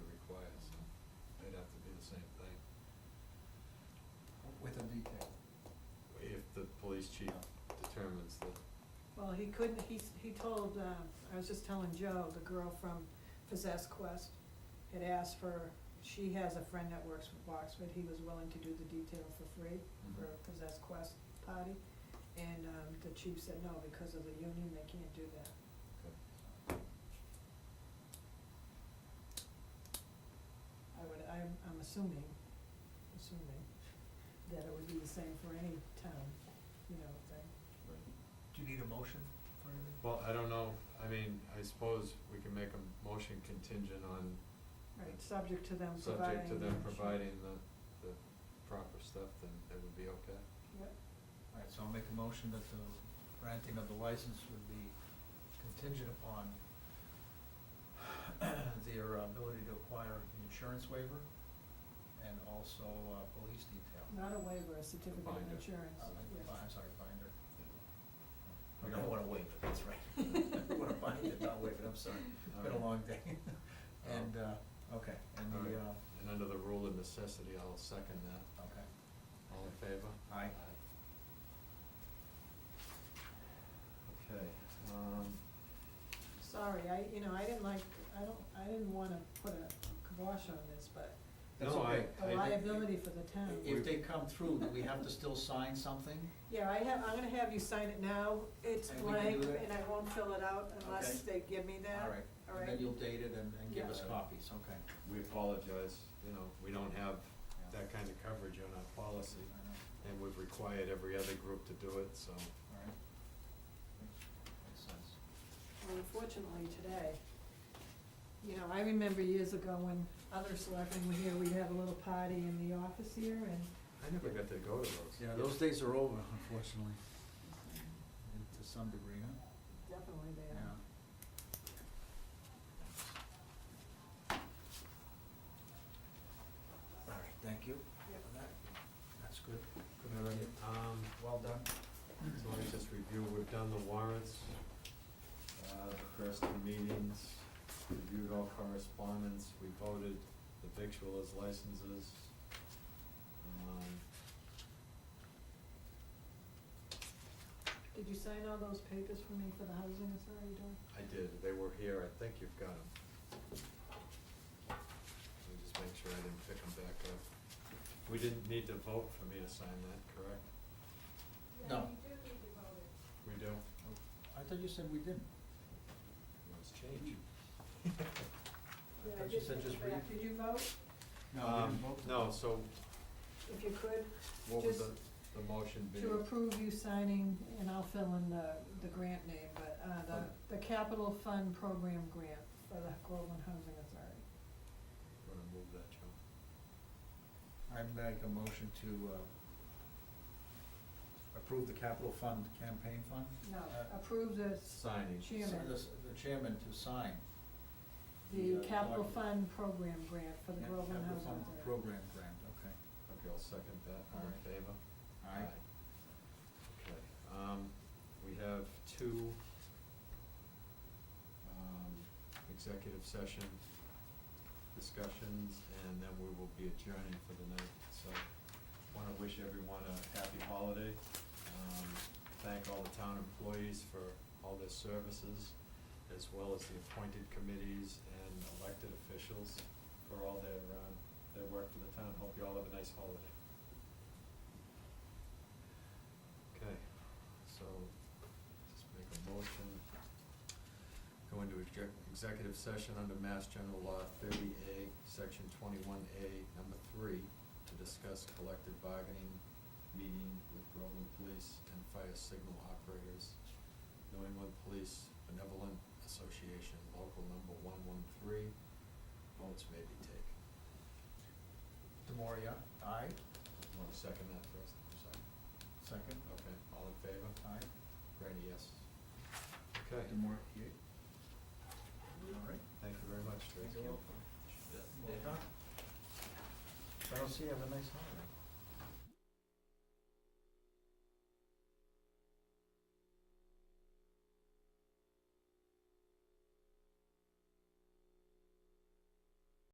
with a detail. if the police chief determines that. Well, he couldn't, he, s- he told, uh, I was just telling Joe, the girl from Possess Quest had asked for, she has a friend that works with Boxford, he was willing to do the detail for free for Mhm. Possess Quest party. And, um, the chief said, no, because of the union, they can't do that. I would, I'm, I'm assuming, assuming that it would be the same for any town, you know, thing. Do you need a motion for anything? Well, I don't know, I mean, I suppose we can make a motion contingent on, Right, subject to them providing. subject to them the- providing the, the proper stuff, then it would be okay. Yep. All right, so I'll make a motion that the granting of the license would be contingent upon their ability to acquire an insurance waiver and also uh, police detail. Not a waiver, a certificate of Binder. insurance, Uh, yes. I'm sorry, binder. We don't wanna waive it, that's right. We wanna bind it, not waive it, I'm sorry. It's been a long day. And, uh, okay, and the, Alright. uh, And under the rule of necessity, I'll second that. okay. All in favor? Aye. Okay, um, Sorry, I, you know, I didn't like, I don't, I didn't wanna put a kibosh on this, but That's No, I- okay. a did- liability for the town. If they come through, do we have to still sign something? Yeah, I have, I'm gonna have you sign it now, it's And we can blank, do that? and I won't fill it out unless they give me that. All right, All and right. then you'll date it and, and give us Yeah. copies, okay. we apologize, you know, we don't have Yeah. that kind of coverage on our policy, I know. and we've required every other group to do it, so. All right. Makes sense. Well, Unfortunately, today, you know, I remember years ago when other selectmen were here, we'd have a little party in the office here, and I never got to go to those. Yeah, those days are over, unfortunately, to some degree, huh? definitely they are. Yeah. All right, thank you Yep. for that. That's good. All right, um, Well done. so let me just review, we've done the warrants, uh, the first two meetings, reviewed all correspondence, we voted the victualers licenses. Um, Did you sign all those papers for me for the housing authority, Dawn? I did, they were here, I think you've got them. Let me just make sure I didn't pick them back up. We didn't need to vote for me to sign that, correct? No. We do. I thought you said we didn't. It was changed. I thought you said just read. Did you vote? No, we didn't vote. Um, No, so If you could, what would Just the, the motion be? to approve you signing, and I'll fill in the, the grant name, but, uh, the, the Capital Fund Program Grant for the Groveland Housing Authority. Wanna move that, Joe? I make a motion to uh, approve the capital fund, campaign fund? No, Uh, approve the s- Signing. chairman, The the chairman to sign. the uh, Capital document. Fund Program Grant for the Yeah, Groveland capital Housing fund Authority. Program grant, okay. Okay, I'll second that, all in Aye. favor? Aye. Okay, um, we have two, um, executive session discussions, and then we will be adjourning for the night, so wanna wish everyone a happy holiday. Um, thank all the town employees for all their services, as well as the appointed committees and elected officials for all their, um, their work for the town. Hope you all have a nice holiday. Okay, so just make a motion. Go into exec- executive session under Mass General Law thirty A, section twenty-one A, number three, to discuss collective bargaining, meeting with Groveland Police and Fire Signal Operators, New England Police Benevolent Association, local number one-one-three, votes may be taken. Demoria, aye. Want to second that first? I'm sorry. Second, Okay, all in favor? aye. Ready, yes. Okay, Demoria, yea. All right. thank you very much, Tracy. Well done. So I'll see you. Have a nice holiday.